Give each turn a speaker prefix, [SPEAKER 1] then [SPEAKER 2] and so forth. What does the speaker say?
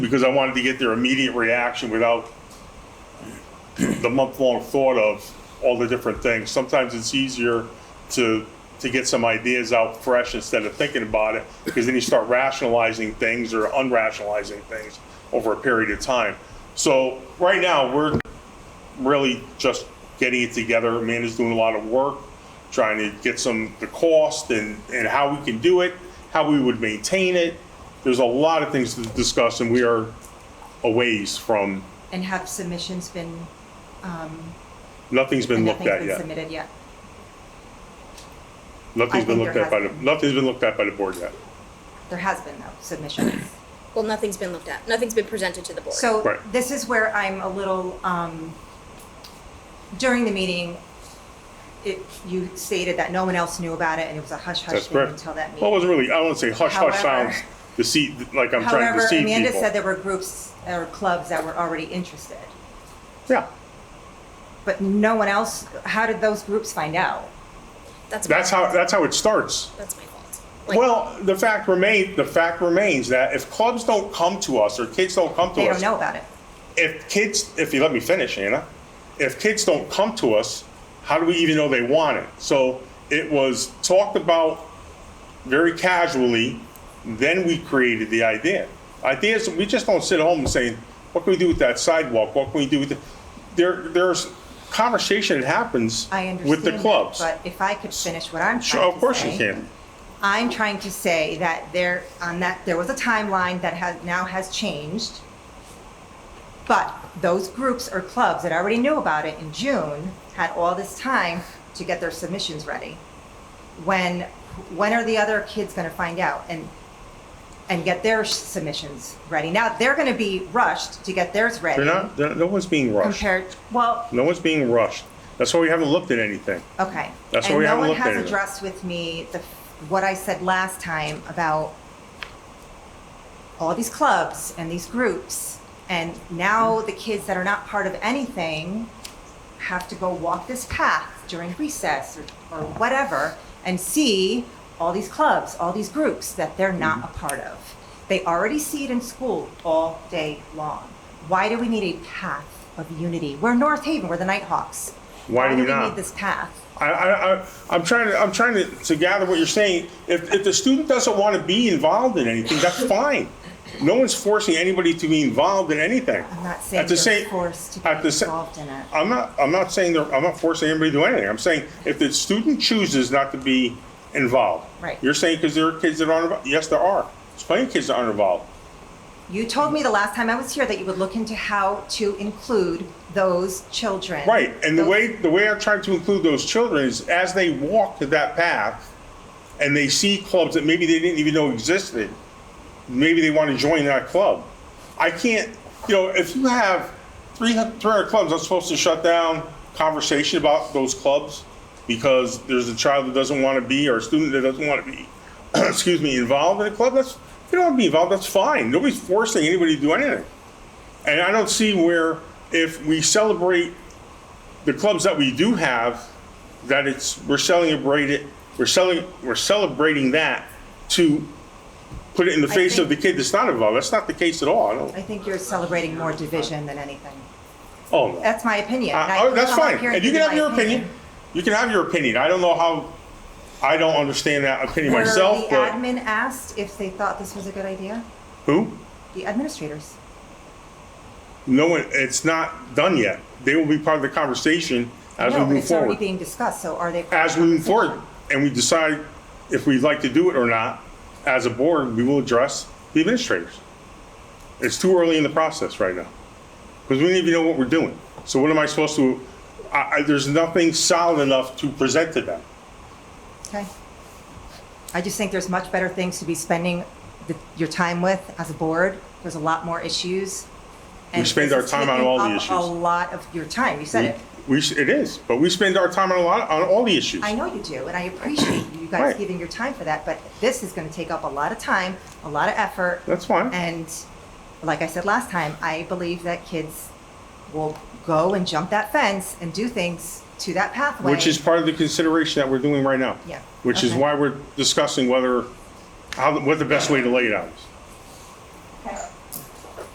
[SPEAKER 1] because I wanted to get their immediate reaction without the month-long thought of all the different things. Sometimes it's easier to, to get some ideas out fresh instead of thinking about it, because then you start rationalizing things or unrationalizing things over a period of time. So right now, we're really just getting it together. Amanda's doing a lot of work, trying to get some, the cost and, and how we can do it, how we would maintain it. There's a lot of things to discuss and we are a ways from,
[SPEAKER 2] And have submissions been,
[SPEAKER 1] nothing's been
[SPEAKER 2] and
[SPEAKER 1] looked
[SPEAKER 2] nothing's
[SPEAKER 1] at
[SPEAKER 2] been
[SPEAKER 1] yet.
[SPEAKER 2] submitted yet?
[SPEAKER 1] Nothing's
[SPEAKER 2] I
[SPEAKER 1] been
[SPEAKER 2] think
[SPEAKER 1] looked
[SPEAKER 2] there
[SPEAKER 1] at by
[SPEAKER 2] has
[SPEAKER 1] the,
[SPEAKER 2] been.
[SPEAKER 1] nothing's been looked at by the board yet.
[SPEAKER 2] There has been though, submissions.
[SPEAKER 3] Well, nothing's been looked at. Nothing's been presented to the board.
[SPEAKER 2] So
[SPEAKER 1] Right.
[SPEAKER 2] this is where I'm a little, um, during the meeting, it, you stated that no one else knew about it and it was a hush-hush
[SPEAKER 1] That's
[SPEAKER 2] thing
[SPEAKER 1] correct.
[SPEAKER 2] until that meeting.
[SPEAKER 1] Well, it wasn't really, I wouldn't say hush hush
[SPEAKER 2] However-
[SPEAKER 1] sounds, deceit, like I'm trying to
[SPEAKER 2] However,
[SPEAKER 1] deceive
[SPEAKER 2] Amanda
[SPEAKER 1] people.
[SPEAKER 2] said there were groups or clubs that were already interested,
[SPEAKER 1] Yeah,
[SPEAKER 2] but no one else, how did those groups find out?
[SPEAKER 3] that's my
[SPEAKER 1] that's how,
[SPEAKER 3] fault.
[SPEAKER 1] that's how it starts.
[SPEAKER 3] that's my fault. Like,
[SPEAKER 1] Well, the fact remains, the fact remains that if clubs don't come to us or kids don't come to
[SPEAKER 2] They
[SPEAKER 1] us,
[SPEAKER 2] don't know about it.
[SPEAKER 1] if kids, if you let me finish, Anna, if kids don't come to us, how do we even know they want it? So it was talked about very casually, then we created the idea. Ideas, we just don't sit at home and say, what can we do with that sidewalk? What can we do with, the-" there, there's conversation that happens
[SPEAKER 2] I understand.
[SPEAKER 1] with the
[SPEAKER 2] that,
[SPEAKER 1] clubs.
[SPEAKER 2] But if I could finish what I'm trying to say.
[SPEAKER 1] Sure, of course you can.
[SPEAKER 2] I'm trying to say that there, on that, there was a timeline that has, now has changed. But those groups or clubs that already knew about it in June had all this time to get their submissions ready. When, when are the other kids gonna find out and, and get their submissions ready? Now, they're gonna be rushed to get theirs ready.
[SPEAKER 1] They're not, they're- no one's being rushed.
[SPEAKER 2] Compared, well,
[SPEAKER 1] No one's being rushed. That's why we haven't looked at anything.
[SPEAKER 2] Okay.
[SPEAKER 1] That's why we haven't looked
[SPEAKER 2] And no
[SPEAKER 1] at it.
[SPEAKER 2] one has addressed with me the, what I said last time about all these clubs and these groups. And now
[SPEAKER 1] Hmm.
[SPEAKER 2] the kids that are not part of anything have to go walk this path during recess or, or whatever and see all these clubs, all these groups that they're
[SPEAKER 1] Hmm.
[SPEAKER 2] not a part of. They already see it in school all day long. Why do we need a path of unity? We're North Haven, we're the Nighthawks.
[SPEAKER 1] Why do we
[SPEAKER 2] we
[SPEAKER 1] not?
[SPEAKER 2] need this path?
[SPEAKER 1] I, I, I, I'm trying to, I'm trying to, to gather what you're saying. If, if the student doesn't want to be involved in anything, that's fine. No one's forcing anybody to be involved in anything.
[SPEAKER 2] I'm not
[SPEAKER 1] At
[SPEAKER 2] saying
[SPEAKER 1] the
[SPEAKER 2] you're
[SPEAKER 1] same-
[SPEAKER 2] forced to be
[SPEAKER 1] at the sa-
[SPEAKER 2] involved in it.
[SPEAKER 1] I'm not, I'm not saying, they're- I'm not forcing anybody to do anything. I'm saying if the student chooses not to be involved.
[SPEAKER 2] Right.
[SPEAKER 1] You're saying because there are kids that aren't, involved. yes, there are. There's plenty of kids that aren't involved.
[SPEAKER 2] You told me the last time I was here that you would look into how to include those children.
[SPEAKER 1] Right, and the
[SPEAKER 2] Those-
[SPEAKER 1] way, the way I try to include those children is as they walk to that path and they see clubs that maybe they didn't even know existed, maybe they want to join that club. I can't, you know, if you have 300 300 clubs, I'm supposed to shut down conversation about those clubs because there's a child that doesn't want to be or a student that doesn't want to be, excuse me, involved in a club, that's, if you don't want to be involved, that's fine. Nobody's forcing anybody to do anything. And I don't see where if we celebrate the clubs that we do have, that it's we're celebrating we're selling we're celebrating that to put it in the
[SPEAKER 2] I
[SPEAKER 1] face of the
[SPEAKER 2] think-
[SPEAKER 1] kid that's not involved. That's not the case at all. I don't,
[SPEAKER 2] I think you're celebrating more division than anything.
[SPEAKER 1] oh no.
[SPEAKER 2] That's my opinion. and
[SPEAKER 1] I-
[SPEAKER 2] I
[SPEAKER 1] I-
[SPEAKER 2] can
[SPEAKER 1] oh, that's
[SPEAKER 2] come up
[SPEAKER 1] fine.
[SPEAKER 2] here
[SPEAKER 1] And you
[SPEAKER 2] give
[SPEAKER 1] can have
[SPEAKER 2] my
[SPEAKER 1] your opinion. You can have your opinion. I don't know how. I don't understand that opinion
[SPEAKER 2] Were
[SPEAKER 1] myself,
[SPEAKER 2] the
[SPEAKER 1] but
[SPEAKER 2] admin asked if they thought this was a good idea?
[SPEAKER 1] who?
[SPEAKER 2] The administrators.
[SPEAKER 1] No one. It's not done yet. They will be part of the conversation as
[SPEAKER 2] no,
[SPEAKER 1] we
[SPEAKER 2] but
[SPEAKER 1] move
[SPEAKER 2] it's
[SPEAKER 1] forward.
[SPEAKER 2] already being discussed. So are they?
[SPEAKER 1] as we move forward and we decide if we'd like to do it or not, as a board, we will address the administrators. It's too early in the process right now. Because we don't even know what we're doing. So what am I supposed to, I, I, there's nothing solid enough to present to them.
[SPEAKER 2] Okay. I just think there's much better things to be spending the, your time with as a board. There's a lot more issues. and
[SPEAKER 1] spend
[SPEAKER 2] this
[SPEAKER 1] our
[SPEAKER 2] is
[SPEAKER 1] time on
[SPEAKER 2] taking
[SPEAKER 1] all the
[SPEAKER 2] up
[SPEAKER 1] issues.
[SPEAKER 2] A lot of your time. You said it.
[SPEAKER 1] We, s- it is, but we spend our time on a lot, on all the issues.
[SPEAKER 2] I know you do, and I appreciate you guys
[SPEAKER 1] Right.
[SPEAKER 2] giving your time for that. But this is going to take up a lot of time, a lot of effort.
[SPEAKER 1] That's fine.
[SPEAKER 2] And like I said last time, I believe that kids will go and jump that fence and do things to that pathway.
[SPEAKER 1] Which is part of the consideration that we're doing right now.
[SPEAKER 2] Yeah,
[SPEAKER 1] Which is
[SPEAKER 2] okay.
[SPEAKER 1] why we're discussing whether, how, what the best way to lay it out is.